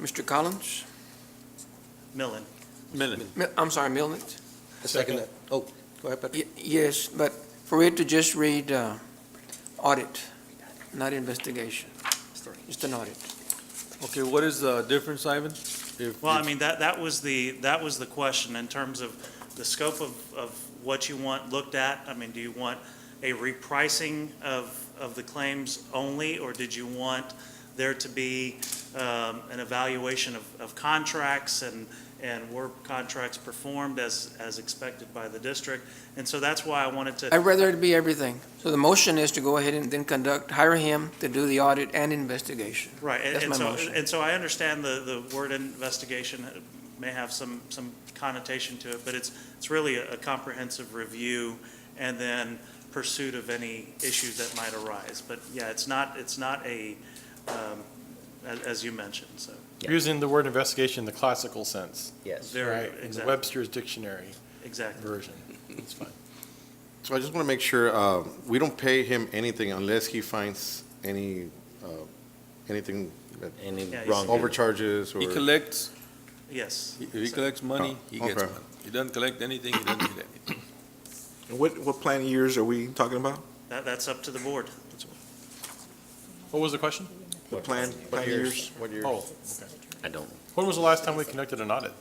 Mr. Collins? Millen. Millen. I'm sorry, Millen? I second that. Oh, go ahead, Patrick. Y- Yes, but for it to just read uh, audit, not investigation, just an audit. Okay, what is the difference, Ivan? If- Well, I mean, that, that was the, that was the question in terms of the scope of, of what you want looked at. I mean, do you want a repricing of, of the claims only, or did you want there to be um, an evaluation of, of contracts and, and were contracts performed as, as expected by the district? And so that's why I wanted to. I'd rather it be everything. So the motion is to go ahead and then conduct, hire him to do the audit and investigation. Right, and- That's and my so, motion. and so I understand the, the word investigation may have some, some connotation to it, but it's, it's really a comprehensive review and then pursuit of any issues that might arise. But yeah, it's not, it's not a, um, as, as you mentioned, so. Using the word investigation in the classical sense, Yes. very right? In the Exactly, Webster's dictionary exactly. version. It's fine. So I just want to make sure, uh, we don't pay him anything unless he finds any, uh, anything that Any Yeah, he's- wrong? overcharges or. He collects, Yes. if he collects money, he gets Okay. money. He doesn't collect anything, he doesn't get anything. What, what plan years are we talking about? That, that's up to the board. What was the question? What plan, What plan years? What years? Oh, I don't. when was the last time we conducted an audit?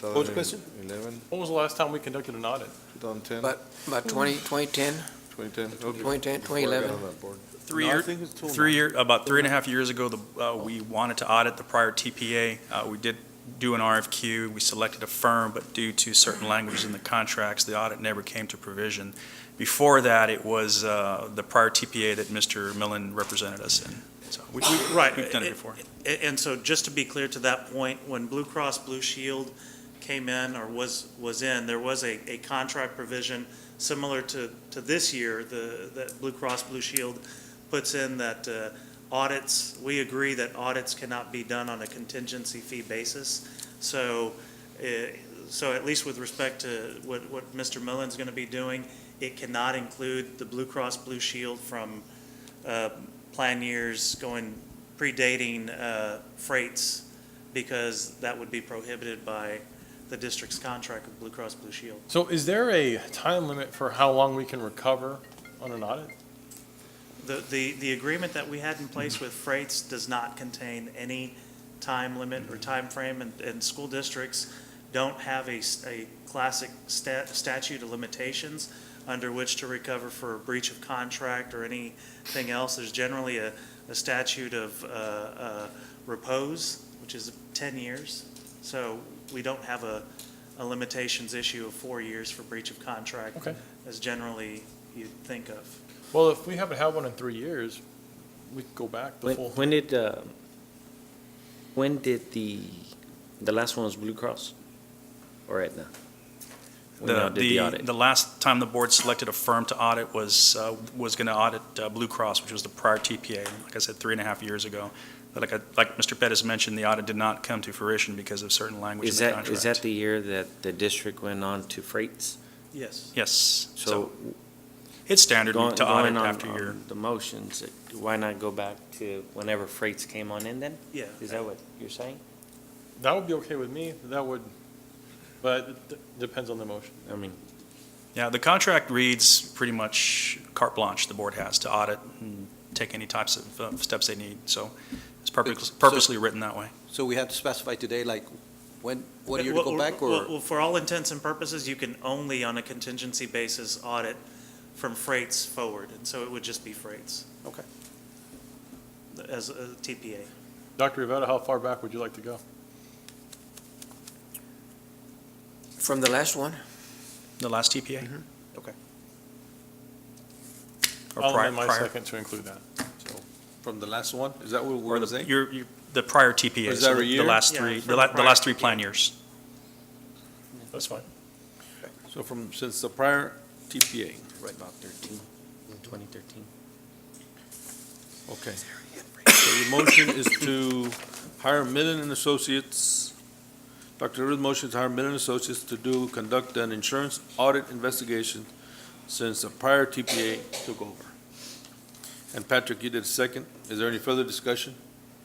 What was the question? 2011, When was the last time we conducted an audit? 2010, But about 20, 2010, 2010. Okay. 2010, Before I got 2011. on that board. Three No, I year, think it's two and a three year, about three and a half years ago, the, uh, we wanted to audit the prior TPA. Uh, we did do an RFQ, we selected a firm, but due to certain language in the contracts, the audit never came to provision. Before that, it was, uh, the prior TPA that Mr. Millen represented us in, so. we- we- Right. We've done it before. A- And so just to be clear to that point, when Blue Cross Blue Shield came in or was, was in, there was a, a contract provision similar to, to this year, the, that Blue Cross Blue Shield puts in that uh, audits, we agree that audits cannot be done on a contingency fee basis. So, eh, so at least with respect to what, what Mr. Millen's going to be doing, it cannot include the Blue Cross Blue Shield from uh, plan years going predating uh, freights because that would be prohibited by the district's contract with Blue Cross Blue Shield. So is there a time limit for how long we can recover on an audit? The, the, the agreement that we had in place with freights does not contain any time limit or time frame, and, and school districts don't have a, s- a classic sta- statute of limitations under which to recover for a breach of contract or anything else. There's generally a, a statute of, uh, uh, repose, which is ten years. So we don't have a, a limitations issue of four years for breach of contract. Okay. As generally you'd think of. Well, if we haven't had one in three years, we could go back the When, full. when did, uh, when did the, the last one was Blue Cross or Aetna? When y'all The, did the the, audit? the last time the board selected a firm to audit was, uh, was going to audit uh, Blue Cross, which was the prior TPA, like I said, three and a half years ago. But like, I- like Mr. Pettis mentioned, the audit did not come to fruition because of certain language in Is the that, contract. is that the year that the district went on to freights? Yes. Yes. So It's standard to going, audit going on, um, after year. on the motions, uh, why not go back to whenever freights came on in then? Yeah. Is that what you're saying? That would be okay with me. That would, but it d- depends on the motion. I mean, Yeah, the contract reads pretty much carte blanche the board has to audit and take any types of uh, steps they need. So it's purpos- So- purposely written that way. So we have to specify today, like, when, what Well, well, well, Well, for all intents and purposes, you can only on a contingency basis audit from freights forward, and so it would just be freights. Okay. As a TPA. Dr. Rivera, how far back would you like to go? From the last one? The last TPA? Mm-hmm. Okay. Or I'll prior- amend my prior- second to include that. From the last one, is that what Or we're the, saying? your, your, the prior TPA, Is that so a the- the year? last Yeah, three, for the the la, the prior last three TPA. plan years. That's fine. So from, since the prior TPA, Right about 13, 2013. okay. So the motion is to hire Millen and Associates, Dr. Rivera's motion is to hire Millen and Associates to do, conduct an insurance audit investigation since the prior TPA took over. And Patrick, you did a second. Is there any further discussion?